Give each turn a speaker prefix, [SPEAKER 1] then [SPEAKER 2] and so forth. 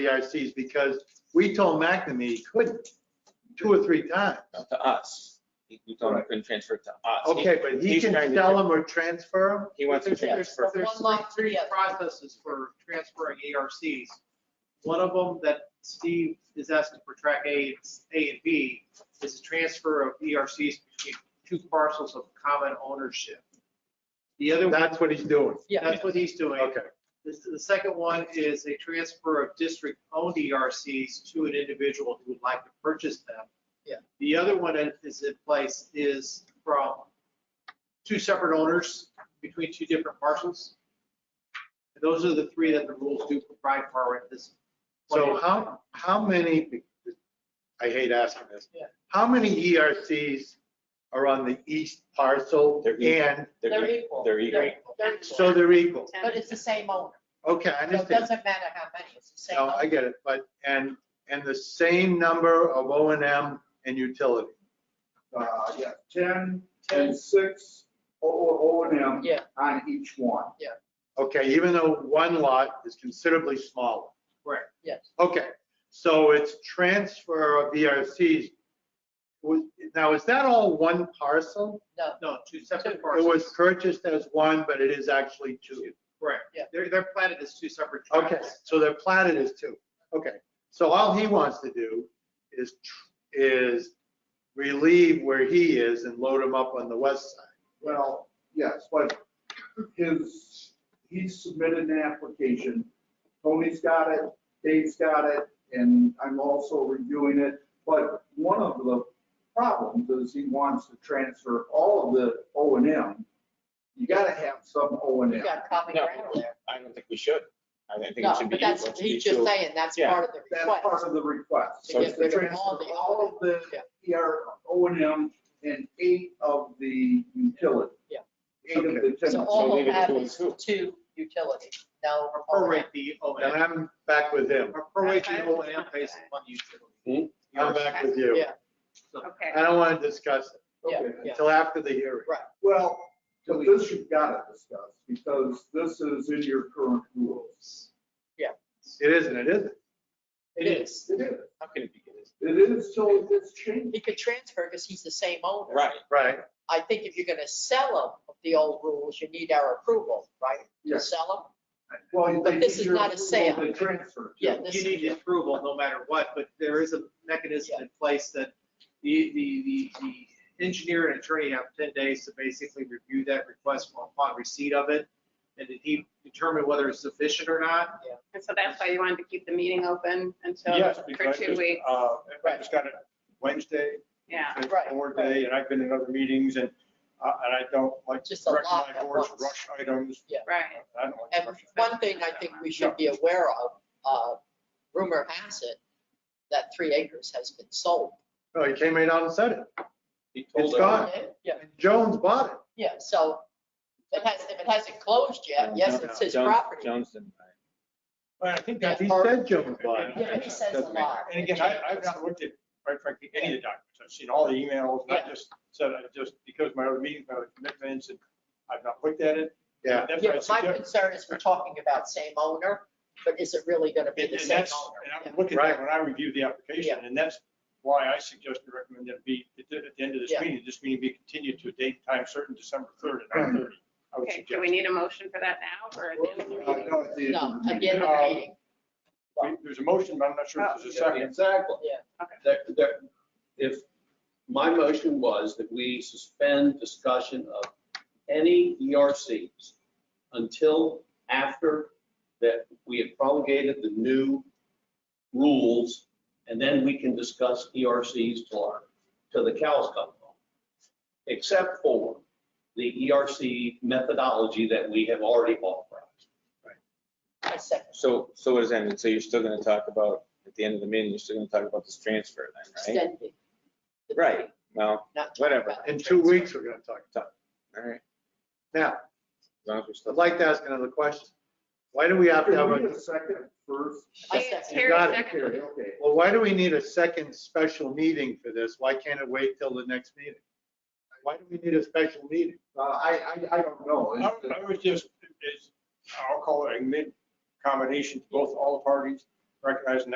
[SPEAKER 1] DRCs because we told McNamee he couldn't two or three times.
[SPEAKER 2] uh, to us. He you told him he couldn't transfer it to us. He-
[SPEAKER 1] Okay, but he
[SPEAKER 2] he's
[SPEAKER 1] can
[SPEAKER 2] trying to
[SPEAKER 1] sell
[SPEAKER 2] do-
[SPEAKER 1] them or transfer
[SPEAKER 2] He wants to
[SPEAKER 3] There's- there's-
[SPEAKER 2] transfer.
[SPEAKER 3] There's
[SPEAKER 4] One
[SPEAKER 3] three,
[SPEAKER 4] lump
[SPEAKER 3] three
[SPEAKER 4] together.
[SPEAKER 3] processes for transferring ARCs. One of them that Steve is asking for track A, it's A and B, is a transfer of ERCs between two parcels of common ownership. The other,
[SPEAKER 1] them?
[SPEAKER 3] one
[SPEAKER 1] That's what he's doing.
[SPEAKER 4] Yeah,
[SPEAKER 3] that's what he's doing.
[SPEAKER 1] Okay.
[SPEAKER 3] The, the second one is a transfer of district-owned ERCs to an individual who would like to purchase them.
[SPEAKER 4] Yeah.
[SPEAKER 3] The other one that is in place is from two separate owners between two different parcels. Those are the three that the rules do provide for at this. point.
[SPEAKER 1] So how, how many, I hate asking this.
[SPEAKER 4] Yeah.
[SPEAKER 1] How many ERCs are on the east parcel
[SPEAKER 2] They're equal.
[SPEAKER 1] and,
[SPEAKER 4] they're equal.
[SPEAKER 2] They're equal.
[SPEAKER 4] They're equal.
[SPEAKER 1] so they're equal?
[SPEAKER 4] But it's the same owner.
[SPEAKER 1] Okay, I
[SPEAKER 4] So It
[SPEAKER 1] understand.
[SPEAKER 4] doesn't matter how many, it's the same
[SPEAKER 1] No, I
[SPEAKER 4] owner.
[SPEAKER 1] get it, but, and, and the same number of O and M and utility.
[SPEAKER 5] Uh, yeah, ten, ten, six, O, O, O and M
[SPEAKER 4] Yeah,
[SPEAKER 5] on each one.
[SPEAKER 1] Okay, even though one lot is considerably smaller.
[SPEAKER 4] yes.
[SPEAKER 1] Okay, so it's transfer of ERCs. Was- Now, is that all one parcel?
[SPEAKER 3] No, two separate
[SPEAKER 1] It
[SPEAKER 3] parcels.
[SPEAKER 1] was purchased as one, but it is actually two.
[SPEAKER 3] Correct.
[SPEAKER 4] Yeah.
[SPEAKER 3] They're, they're platted as two separate
[SPEAKER 1] Okay,
[SPEAKER 3] tracts.
[SPEAKER 1] so they're platted as two. Okay, so all he wants to do is, tr- is relieve where he is and load him up on the west side.
[SPEAKER 5] Well, yes, but his, he submitted an application. Tony's got it, Dave's got it, and I'm also reviewing it. But one of the problems is he wants to transfer all of the O and M. You gotta have some O and
[SPEAKER 4] You
[SPEAKER 5] M.
[SPEAKER 4] got common
[SPEAKER 2] No.
[SPEAKER 4] ground there.
[SPEAKER 2] I don't think we should. I don't think
[SPEAKER 4] No,
[SPEAKER 2] it should be
[SPEAKER 4] but
[SPEAKER 2] equal.
[SPEAKER 4] that's,
[SPEAKER 2] It should be
[SPEAKER 4] he's just
[SPEAKER 2] two.
[SPEAKER 4] saying that's
[SPEAKER 2] Yeah.
[SPEAKER 4] part of the
[SPEAKER 5] That's
[SPEAKER 4] request.
[SPEAKER 5] part of the request.
[SPEAKER 4] To
[SPEAKER 2] So
[SPEAKER 4] get
[SPEAKER 2] it's
[SPEAKER 5] The
[SPEAKER 4] rid of
[SPEAKER 5] transfer,
[SPEAKER 4] all the.
[SPEAKER 5] all of the
[SPEAKER 4] Yeah.
[SPEAKER 5] ER, O and M, and eight of the utility.
[SPEAKER 4] Yeah.
[SPEAKER 5] Eight of the ten.
[SPEAKER 4] So
[SPEAKER 2] So
[SPEAKER 4] all
[SPEAKER 2] leave
[SPEAKER 4] of
[SPEAKER 2] it
[SPEAKER 4] that
[SPEAKER 2] two and
[SPEAKER 4] is
[SPEAKER 2] two.
[SPEAKER 4] two utilities, no.
[SPEAKER 3] Prorate the O
[SPEAKER 1] And
[SPEAKER 3] and M.
[SPEAKER 1] I'm back with him.
[SPEAKER 3] Or Prorate the O and M based on utility.
[SPEAKER 1] I'm back with you.
[SPEAKER 4] Yeah,
[SPEAKER 6] Okay,
[SPEAKER 1] I don't want to discuss it
[SPEAKER 4] yeah,
[SPEAKER 5] Okay.
[SPEAKER 4] yeah.
[SPEAKER 1] until after the hearing.
[SPEAKER 5] Well, but this you've got to discuss, because this is in your current rules.
[SPEAKER 1] It isn't, it isn't.
[SPEAKER 4] It is.
[SPEAKER 5] It is,
[SPEAKER 2] How can it be? this?
[SPEAKER 5] it is till it's changed.
[SPEAKER 4] He could transfer because he's the same owner.
[SPEAKER 2] Right.
[SPEAKER 1] Right,
[SPEAKER 4] I think if you're going to sell them, the old rules, you need our approval, right? To
[SPEAKER 5] Yes.
[SPEAKER 4] sell them?
[SPEAKER 5] Well,
[SPEAKER 4] But
[SPEAKER 5] they
[SPEAKER 4] this
[SPEAKER 5] need
[SPEAKER 4] is
[SPEAKER 5] your
[SPEAKER 4] not a sale.
[SPEAKER 5] approval to transfer.
[SPEAKER 4] Yeah, this
[SPEAKER 3] You
[SPEAKER 4] is-
[SPEAKER 3] need approval no matter what, but there is a mechanism in place that the, the, the, the engineer and attorney have ten days to basically review that request upon receipt of it. And did he determine whether it's sufficient or not?
[SPEAKER 6] and so that's why you wanted to keep the meeting open until,
[SPEAKER 7] Yes,
[SPEAKER 6] for
[SPEAKER 7] because
[SPEAKER 6] two weeks,
[SPEAKER 7] uh, I just got it Wednesday,
[SPEAKER 6] yeah.
[SPEAKER 7] it's
[SPEAKER 4] Right,
[SPEAKER 7] board
[SPEAKER 4] right.
[SPEAKER 7] day, and I've been in other meetings, and, uh, and I don't like to
[SPEAKER 4] Just a lot
[SPEAKER 7] recognize
[SPEAKER 4] at
[SPEAKER 7] boards
[SPEAKER 4] once.
[SPEAKER 7] rush items.
[SPEAKER 6] Right.
[SPEAKER 7] I don't like to
[SPEAKER 4] And
[SPEAKER 7] rush.
[SPEAKER 4] one thing I think we should be aware of, uh, rumor has it that three acres has been sold.
[SPEAKER 1] no, Oh, he came right out and said it.
[SPEAKER 2] He
[SPEAKER 1] It's
[SPEAKER 2] told
[SPEAKER 1] gone.
[SPEAKER 2] us.
[SPEAKER 4] Yeah,
[SPEAKER 1] And Jones bought it.
[SPEAKER 4] yeah, so it has, if it hasn't closed yet, yes, it's his
[SPEAKER 2] Jones-
[SPEAKER 4] property.
[SPEAKER 2] Jones didn't buy it.
[SPEAKER 7] But I think
[SPEAKER 4] Yeah.
[SPEAKER 7] that's.
[SPEAKER 1] He
[SPEAKER 7] part-
[SPEAKER 1] said Jones bought it.
[SPEAKER 4] Yeah, but he says a lot.
[SPEAKER 7] And again, I, I've not looked at, quite frankly, any of the documents, I've seen all the emails, and
[SPEAKER 4] Yeah.
[SPEAKER 7] I just said, I just, because my other meetings, my other commitments, and I've not looked at it.
[SPEAKER 1] Yeah.
[SPEAKER 7] That's
[SPEAKER 4] Yeah,
[SPEAKER 7] why I
[SPEAKER 4] but my
[SPEAKER 7] suggest-
[SPEAKER 4] concern is we're talking about same owner, but is it really going to be
[SPEAKER 7] And
[SPEAKER 4] the
[SPEAKER 7] and
[SPEAKER 4] same
[SPEAKER 7] that's, and
[SPEAKER 4] owner?
[SPEAKER 7] I'm looking
[SPEAKER 1] Right.
[SPEAKER 7] at when I review the application, and that's why I suggest and recommend that it be, at the- at the end of this
[SPEAKER 4] Yeah.
[SPEAKER 7] meeting, this meeting be continued to a date, time certain, December 3rd at 9:30. I would
[SPEAKER 6] Okay, do we
[SPEAKER 7] suggest.
[SPEAKER 6] need a motion for that now or at the end of the
[SPEAKER 5] Uh,
[SPEAKER 6] meeting?
[SPEAKER 5] no, at the end
[SPEAKER 4] No,
[SPEAKER 5] of the
[SPEAKER 4] at the end
[SPEAKER 5] meeting.
[SPEAKER 4] of
[SPEAKER 7] Um,
[SPEAKER 4] the meeting,
[SPEAKER 7] We- There's a motion, but I'm not sure if there's a second.
[SPEAKER 8] Exactly.
[SPEAKER 4] yeah.
[SPEAKER 8] That, that, if, my motion was that we suspend discussion of any ERCs until after that we have promulgated the new rules, and then we can discuss E ERCs till our, till the cows come home. Except for the ERC methodology that we have already authorized.
[SPEAKER 4] I second.
[SPEAKER 2] So, so what does that mean? So you're still going to talk about, at the end of the meeting, you're still going to talk about this transfer then, right?
[SPEAKER 4] extending. the
[SPEAKER 2] Right.
[SPEAKER 4] meeting,
[SPEAKER 2] Well,
[SPEAKER 4] not talking
[SPEAKER 2] Whatever.
[SPEAKER 4] about the
[SPEAKER 1] In two
[SPEAKER 4] transfer.
[SPEAKER 1] weeks, we're gonna talk.
[SPEAKER 2] all right.
[SPEAKER 1] Now,
[SPEAKER 2] As long as we're still.
[SPEAKER 1] I'd like to ask another question. Why do we have to have
[SPEAKER 5] Can we
[SPEAKER 1] a,
[SPEAKER 5] get a second first?
[SPEAKER 4] I
[SPEAKER 6] She-
[SPEAKER 4] second.
[SPEAKER 6] Terry
[SPEAKER 1] Got it,
[SPEAKER 6] seconded.
[SPEAKER 5] Here, Okay.
[SPEAKER 1] well, why do we need a second special meeting for this? Why can't it wait till the next meeting? Why do we need a special meeting?
[SPEAKER 5] Uh, I, I, I don't know.
[SPEAKER 7] I
[SPEAKER 5] It's-
[SPEAKER 7] I was just, it's, I'll call it a mid combination to both all parties
[SPEAKER 1] recognizing